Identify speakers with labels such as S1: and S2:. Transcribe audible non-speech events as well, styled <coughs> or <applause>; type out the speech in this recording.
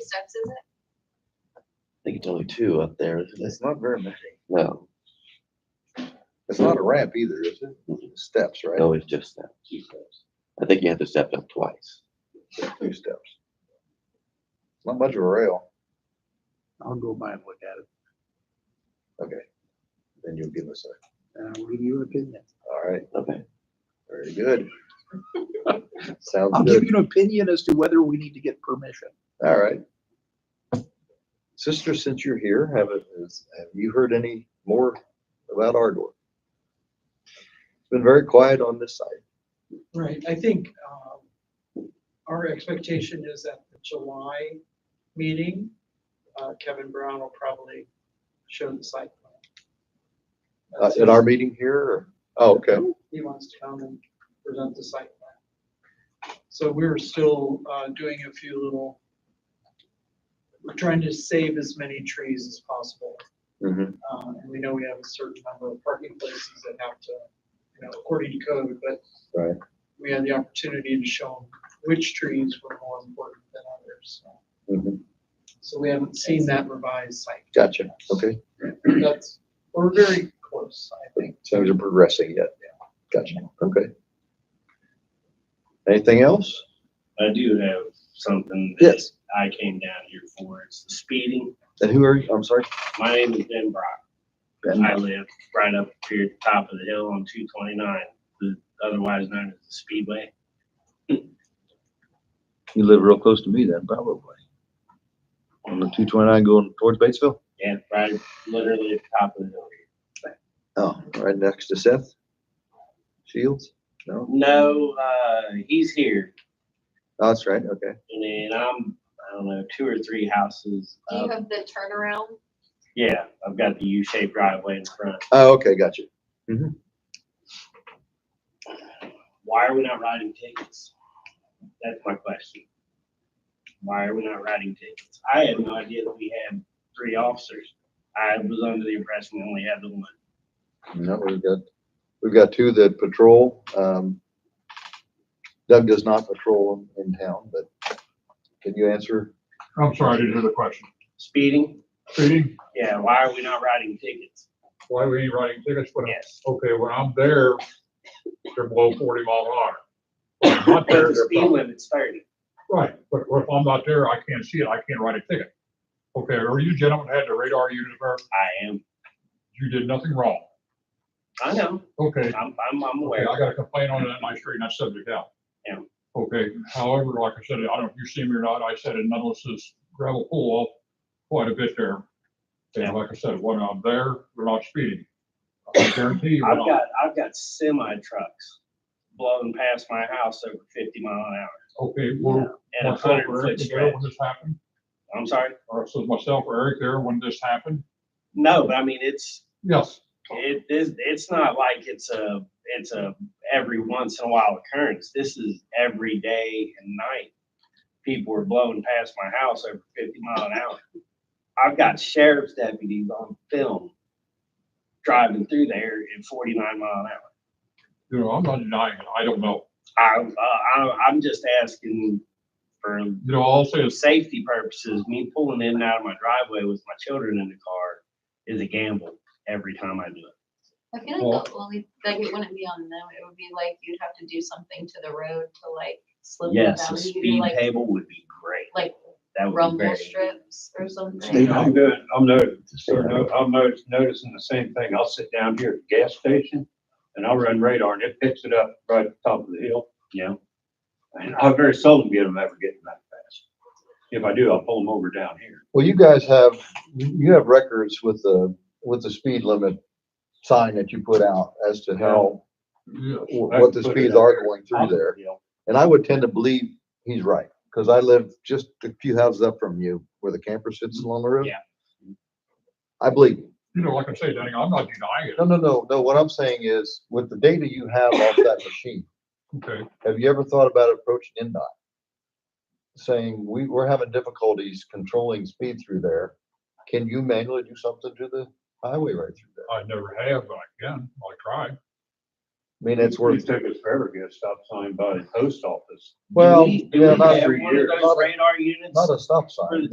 S1: steps, is it?
S2: think it's only two up there, isn't it?
S3: It's not very many.
S2: No,
S3: It's not a ramp either, is it? Steps, right?
S2: no, it's just steps. I think you have to step up twice.
S3: Two steps. Not much of a rail.
S4: I'll go by and look at it,
S3: Okay. Then you'll give us a,
S4: and I will give you an opinion.
S3: all right,
S2: Okay.
S3: very good. Sounds
S4: I'll give
S3: good.
S4: you an opinion as to whether we need to get permission.
S3: All right. Sister, since you're here, have, it- is- have you heard any more about Ardor? It's been very quiet on this side.
S5: Right, I think um, our expectation is that the July meeting, uh, Kevin Brown will probably show the site plan.
S3: Uh, At our meeting here, or? Oh, okay.
S5: He wants to come and present the site plan. So we're still uh, doing a few little, we're trying to save as many trees as possible.
S3: Mhm.
S5: Uh, And we know we have a certain number of parking places that have to, you know, according to code, but
S3: Right.
S5: we had the opportunity to show them which trees were more important than others. so.
S3: Mhm.
S5: So we haven't seen that revised site.
S3: Gotcha. Okay.
S5: That's, we're very close, I think.
S3: Things are progressing yet. Gotcha. Okay. Anything else?
S6: I do have something. that
S3: Yes.
S6: I came down here for, it's the speeding.
S3: And who are you? I'm sorry.
S6: My name is Ben Brock.
S3: Ben.
S6: I live right up here at the top of the hill on two twenty-nine, otherwise known as the Speedway.
S7: You live real close to me then, probably. On the two twenty-nine going towards Batesville?
S6: Yeah, right, literally at the top of the hill. here.
S3: Oh, right next to Seth Shields? No,
S6: No, uh, he's here,
S3: Oh, that's right. Okay.
S6: and then I'm, I don't know, two or three houses
S1: Do you
S6: up.
S1: have the turnaround?
S6: Yeah, I've got the U-shaped driveway in front.
S3: Oh, okay. Gotcha.
S6: Why are we not writing tickets? That's my question. Why are we not writing tickets? I had no idea that we had three officers. I was under the impression we only had the one.
S3: No, we've got, we've got two that patrol. Um, Doug does not patrol in in town, but can you answer?
S8: I'm sorry, I didn't hear the question.
S6: Speeding?
S8: Speeding,
S6: Yeah, why are we not writing tickets?
S8: why we ain't writing tickets, but,
S6: Yes.
S8: okay, when I'm there, they're below forty mile an hour. When I'm not there,
S6: The
S8: they're
S6: speed
S8: about-
S6: limit's thirty.
S8: Right, but if I'm not there, I can't see it, I can't write a ticket. Okay, or you gentlemen had the radar unit there,
S6: I am,
S8: you did nothing wrong.
S6: I know,
S8: Okay,
S6: I'm, I'm, I'm
S8: okay,
S6: aware.
S8: I got a complaint on that, and I straightened that subject out.
S6: Yeah.
S8: Okay, however, like I said, I don't know if you see me or not, I said in Nuttles's gravel pool off quite a bit there.
S6: Yeah.
S8: And like I said, when I'm there, we're not speeding.
S6: <coughs>
S8: I guarantee you,
S6: I've
S8: when I'm
S6: got, I've got semi trucks blowing past my house over fifty mile an hour
S8: Okay, well,
S6: at a
S8: myself
S6: hundred
S8: or
S6: foot
S8: Eric there
S6: stretch.
S8: when this happened,
S6: I'm sorry?
S8: or so myself or Eric there when this happened,
S6: No, but I mean, it's,
S8: yes,
S6: It is, it's not like it's a, it's a every once in a while occurrence. This is every day and night. People are blowing past my house over fifty mile an hour. I've got sheriff's deputies on film driving through there at forty-nine mile an hour.
S8: you know, I'm not denying it, I don't know.
S6: I, uh, I, I'm just asking for,
S8: You know, I'll say
S6: for
S8: it's,
S6: safety purposes, me pulling in and out of my driveway with my children in the car is a gamble every time I do it.
S1: I feel like the only, like it wouldn't be on them, it would be like you'd have to do something to the road to like slow them down.
S6: Yes, a
S1: You could do,
S6: speed
S1: like-
S6: table would be great.
S1: Like
S6: That would be
S1: rumble
S6: very.
S1: strips or
S7: Stay
S1: something.
S7: home.
S9: I'm good, I'm noticing, I'm not- noticing the same thing, I'll sit down here at the gas station, and I'll run radar, and it picks it up right at the top of the hill,
S6: Yeah,
S9: and I very seldom get them ever getting that fast. If I do, I'll pull them over down here.
S3: Well, you guys have, you have records with the, with the speed limit sign that you put out as to how,
S8: yeah,
S3: what the speeds are going through there. And I would tend to believe he's right, because I live just a few houses up from you where the camper sits along the road.
S6: Yeah.
S3: I believe. you.
S8: you know, like I say, Danny, I'm not denying
S3: No, no, no, no. What I'm saying is with the data you have off that machine,
S8: it, okay,
S3: have you ever thought about approaching NDOT? Saying, we, we're having difficulties controlling speed through there. Can you manually do something to the highway right through there?
S8: I never have, but I can, I try.
S3: I mean, it's
S9: It
S3: worth,
S9: took us forever to get a stop sign by the post office.
S3: well,
S6: Do we- do
S3: yeah,
S6: we
S3: not,
S6: have
S9: every
S6: one of
S9: year.
S6: those
S3: Not a-
S6: Radar units?
S3: not a stop
S6: For
S3: sign.
S6: the
S3: but-